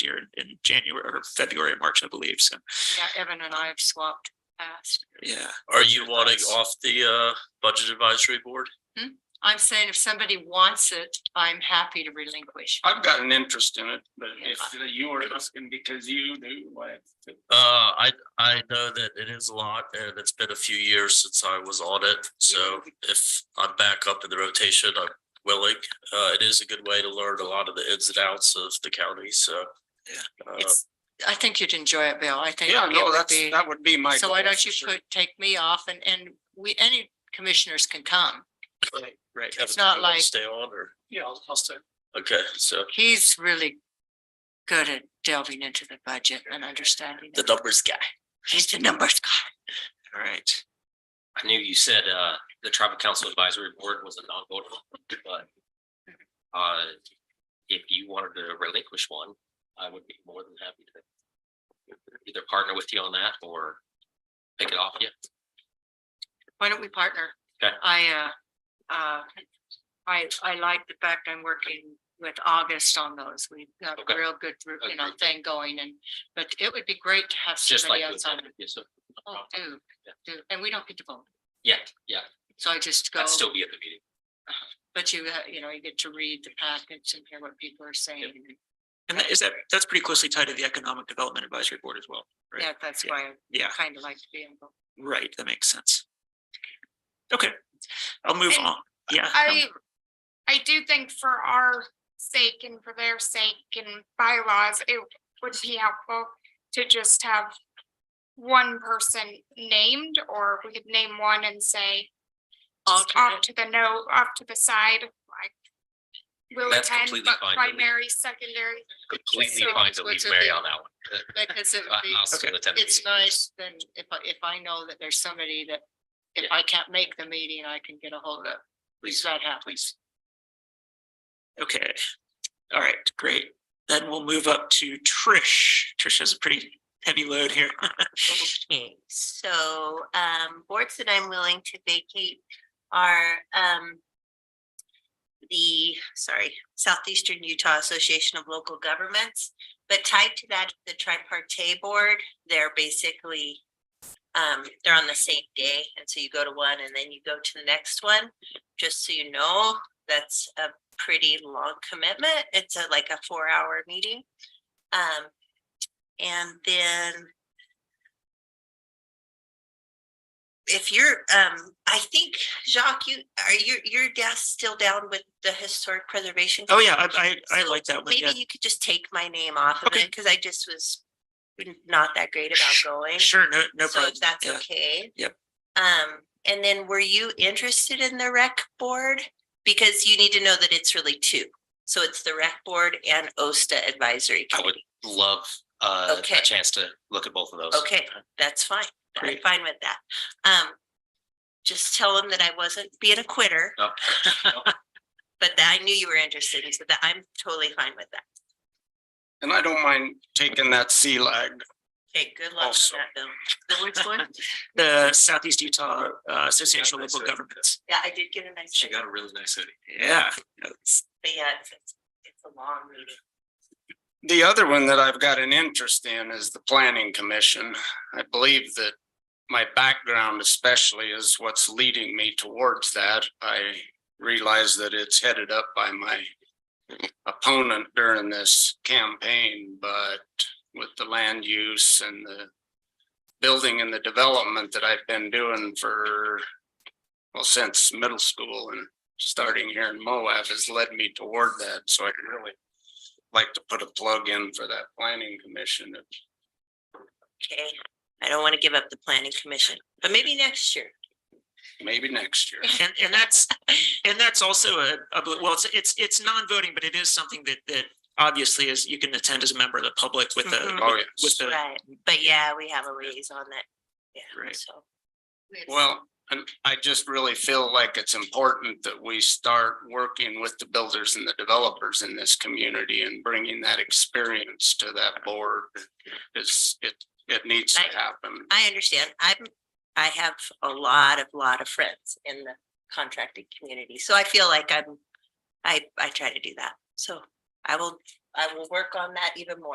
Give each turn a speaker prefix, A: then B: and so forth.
A: year in- in January or February, March, I believe. So,
B: Yeah, Evan and I have swapped past.
A: yeah.
C: Are you wanting
A: Advice.
C: off the uh budget advisory board?
B: I'm saying if somebody wants it, I'm happy to relinquish.
D: I've got an interest in it, but
B: Yeah.
D: if you were asking because you knew what.
C: Uh, I I know that it is a lot and it's been a few years since I was on it. So if I'm back up in the rotation, I'm willing. Uh, it is a good way to learn a lot of the ins and outs of the county, so.
A: Yeah.
C: uh,
B: It's, I think you'd enjoy it, Bill. I think.
D: Yeah,
B: it
D: no,
B: would
D: that's,
B: be-
D: that would be my.
B: So why
D: goal
B: don't
D: for
B: you
D: sure.
B: put, take me off and, and we, any commissioners can come.
D: Right, Right.
C: Kevin,
B: not
C: you wanna
B: like-
C: Stay on or,
D: Yeah, I'll, I'll say.
C: okay, so
B: He's really good at delving into the budget and understanding.
C: the
B: it.
C: numbers guy.
B: He's the numbers guy.
A: All right.
E: I knew you said uh the tribal council advisory board was a non-votable, but. Uh, if you wanted to relinquish one, I would be more than happy to. Either partner with you on that or pick it off you.
B: Why don't we partner?
E: Okay.
B: I, uh, uh, I, I like the fact I'm working with August on those. We've got a
E: Okay.
B: real good, you know,
E: Agreed.
B: thing going and, but it would be great to have
E: It's just like.
B: somebody else on. it.
E: Yes, so-
B: Oh, do,
E: Yeah.
B: do, and we don't get to vote.
E: Yeah, yeah,
B: So I just go,
E: I'd still be at the meeting.
B: but you, ha- you know, you get to read the packets and hear what people are saying.
A: And that is that, that's pretty closely tied to the Economic Development Advisory Board as well. Right.
B: Yeah, that's
A: Yeah.
B: why I
A: Yeah,
B: kind of like to be involved.
A: right. That makes sense. Okay, I'll move
F: And
A: on. Yeah. um,
F: I, I do think for our sake and for their sake and bylaws, it would be helpful to just have one person named, or we could name one and say just off
B: Alternate.
F: to the no, off to the side, like will
E: That's
F: attend,
E: completely
F: but
E: fine to me.
F: primary, secondary.
E: Completely
B: So
E: fine to leave
B: what's with
E: Mary
B: the-
E: on that one.
B: Because it would
E: I-
B: be,
E: Uh, I'll still attend the
B: it's
E: meeting.
B: nice, then if I, if I know that there's somebody that, if I can't make the meeting, I can get a hold of. Please, that happens.
A: um, Okay, all right, great. Then we'll move up to Trish. Trish has a pretty heavy load here.
G: Okay, so um boards that I'm willing to vacate are um. The, sorry, Southeastern Utah Association of Local Governments, but tied to that, the tripartite board, they're basically. Um, they're on the same day, and so you go to one and then you go to the next one, just so you know, that's a pretty long commitment. It's a like a four-hour meeting. Um, and then if you're, um, I think Jacques, you, are you, your dad's still down with the historic preservation?
A: Oh, yeah,
G: Commission?
A: I, I, I
G: So
A: like that one. Yeah,
G: Maybe you could just take my name off of
A: Okay.
G: it, because I just was not that great about going.
A: sure, no, no
G: So
A: problem.
G: if that's
A: Yeah.
G: okay.
A: Yep.
G: Um, and then were you interested in the rec board? Because you need to know that it's really two. So it's the rec board and OSTA advisory
E: I would
G: committee.
E: love uh
G: Okay.
E: a chance to look at both of those.
G: Okay, that's fine. I'm
A: Great.
G: fine with that. Um, just tell them that I wasn't being a quitter,
E: No.
G: but that I knew you were interested. So that I'm totally fine with that.
D: And I don't mind taking that sea lag.
G: Okay, good luck
D: Also-
G: on that, Bill. The words one?
A: The Southeast Utah uh, Association of Local Governments.
G: Yeah, I did get a nice.
E: She
G: check,
E: got a really nice hoodie.
A: Yeah, that's-
G: But yeah, it's, it's- it's a long meeting.
D: The other one that I've got an interest in is the planning commission. I believe that my background especially is what's leading me towards that. I realize that it's headed up by my opponent during this campaign, but with the land use and the building and the development that I've been doing for, well, since middle school and starting here in Moab has led me toward that. So I really like to put a plug in for that planning commission.
G: Okay, I don't want to give up the planning commission, but maybe next year.
D: Maybe next year.
A: and, and that's, and that's also a, a, bl- well, it's, it's, it's non-voting, but it is something that, that obviously is, you can attend as a member of the public with
G: Mhm.
A: the,
D: Oh,
A: with
D: yes.
A: the,
G: Right, but yeah, we have a liaison that, yeah,
A: Right.
G: so.
D: Well, and I just really feel like it's important that we start working with the builders and the developers in this community and bringing that experience to that board. It's, it, it needs to
G: Right.
D: happen.
G: I understand. I'm, I have a lot of, lot of friends in the contracting community, so I feel like I'm, I, I try to do that. So I will, I will work on that even more.